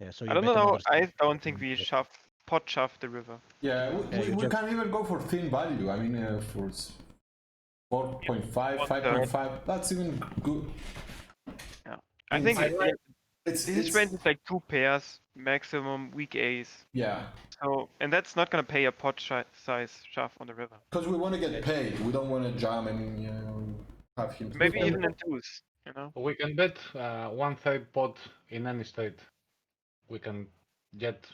Yeah, so I don't know. I don't think we shove pot shove the river. Yeah, we, Yeah, we, you we just- can even go for thin value. I mean, uh, for s- 4.5, One 5.5. That's even good. I Mm, think I it- like- it- It's, this it's- is when it's like two pairs maximum weak ace. yeah, So and that's not gonna pay a pot shi- size shove on the river. because we want to get paid. We don't want to jam and you know, have him. Maybe spend- even in twos. You know. We can bet uh, one third pot in any state. We can get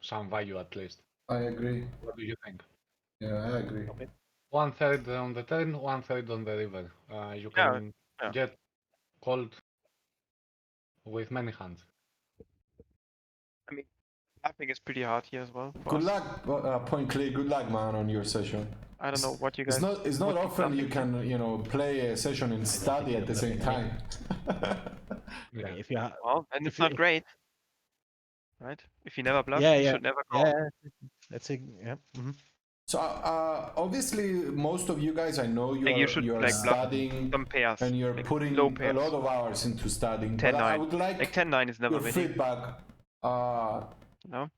some value at least. I agree. What do you think? Yeah, I agree. One third on the turn, one third on the river. Uh, you Yeah, can yeah. get called with many hands. Tapping is pretty hard here as well. for Good us. luck, bu- uh, Point Clay. Good luck, man, on your session. I don't know what you guys. It's not. It's not what you often you think- can you know play a session and study at the same time. Yeah. If you ha- Well, and If it's not you- great, right? If you never bluff, Yeah, you yeah. should never call. yeah, that's a yeah. mhm. so uh, obviously, most of you guys, I know you Like, are you should, you are like, bluff studying Some pairs, and you're like putting low a pairs. lot of hours into studying. Ten but I nine. would like, like 10-9 is never your winning. feedback. Uh, No,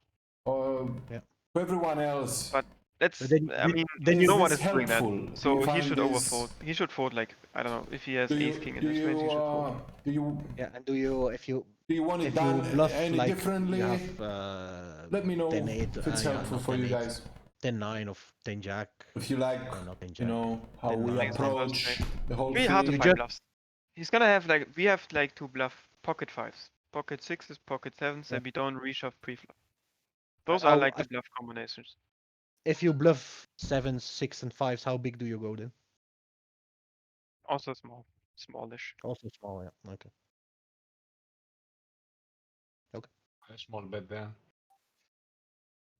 or Yeah. to everyone else. But that's. But then, I then- mean, then is no you one this is doing that. helpful? Do So you he find should this- overfold. He should fold like I don't know if he has Do you, ace king in do his range. He you, should fold. uh, do you yeah. And do you if you do you want it if done you bluff any like differently? you have uh, Let me know 10 8, if it's uh, yeah, helpful no, for 10 you 8, guys. ten nine of ten jack, If you like, uh, not ten jack. you know how Then we nine is not approach the whole Really thing. hard to you find just- bluffs. He's gonna have like we have like to bluff pocket fives, pocket sixes, pocket sevens, Yeah. and we don't reshove pre-flop. Those I- are like I- the bluff combinations. If you bluff sevens, six, and fives, how big do you go then? Also small, smallish. Also small. Yeah. Okay. A small bet there.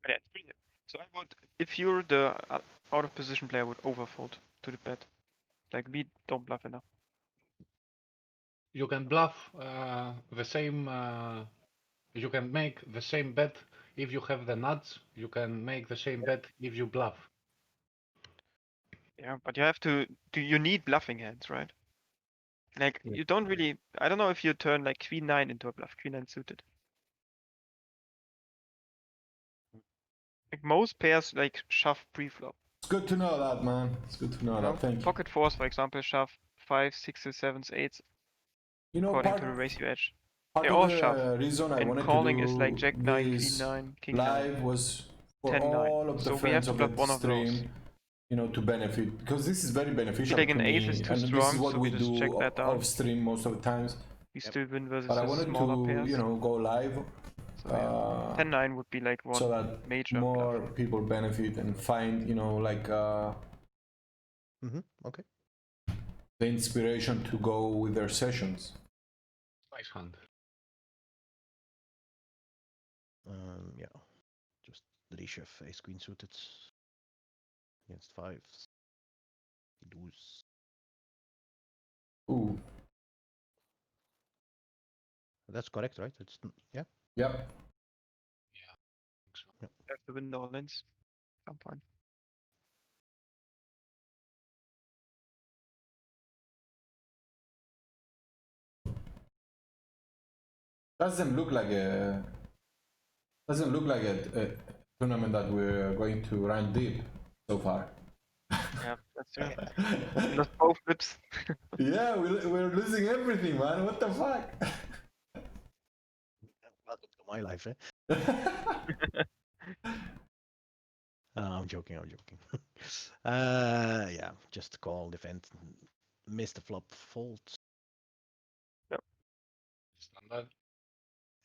But yeah, it's pretty. So I would, if you're the uh, out of position player, I would overfold to the bet. Like we don't bluff enough. You can bluff uh, the same. Uh, you can make the same bet if you have the nuts. You can make the same bet if you bluff. Yeah, but you have to. Do you need bluffing hands, right? Like Yeah. you don't really. I don't know if you turn like queen nine into a bluff. Queen nine suited. Like most pairs, like shove pre-flop. It's good to know that, man. It's good to know you know? that. Thank you. Pocket fours, for example, shove five, sixes, sevens, eights, You know, according part, to the ratio edge. part they all of the shove. uh, reason I And wanted calling to do is like jack nine, queen this nine, king live nine. was for 10-9. all of the So we have friends to of block the one of those. stream. You know, to benefit because this is very beneficial. Like an to me, ace is too and this strong, is what so we we just do check o- that down. off stream most of the times. We still win versus But I the wanted smaller to, pairs. you know, go live so yeah. uh, 10-9 would be like one so that major more bluff. people benefit and find, you know, like uh, Mm-hmm. Okay. the inspiration to go with their sessions. Nice hand. Um. Yeah. Just reshove ace queen suited against fives. You lose. Ooh, That's correct, right? It's n- yeah. yep. Have to win the all ins. Some point. Doesn't look like a doesn't look like a, a tournament that we're going to run deep so far. Yeah, that's true. Just both flips. yeah, we're, we're losing everything, man. What the fuck? Welcome to my life, eh? Uh, I'm joking. I'm joking. uh, yeah, just call defend, miss the flop, fold. Standard.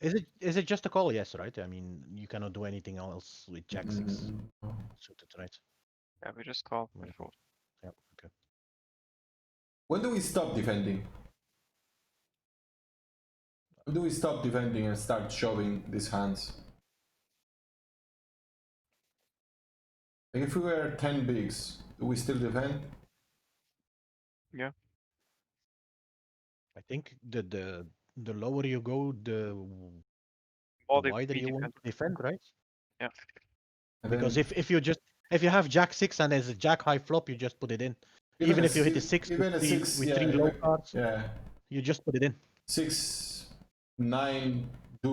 Is it is it just a call? Yes, right. I mean, you cannot do anything else with Jack six Mm, suited, right? Yeah, we just call. Yeah. fold. Yeah. Okay. When do we stop defending? When do we stop defending and start shoving these hands? Like if we were 10 bigs, do we still defend? I think the the the lower you go, the, w- All the the wider three you want to defend, right? Yeah. And Because then- if if you just if you have Jack six and there's a Jack high flop, you just put it in. Even, if you hit a si- six even with a three, six, with yeah, three low even- cards, yeah, you just put it in. six, nine,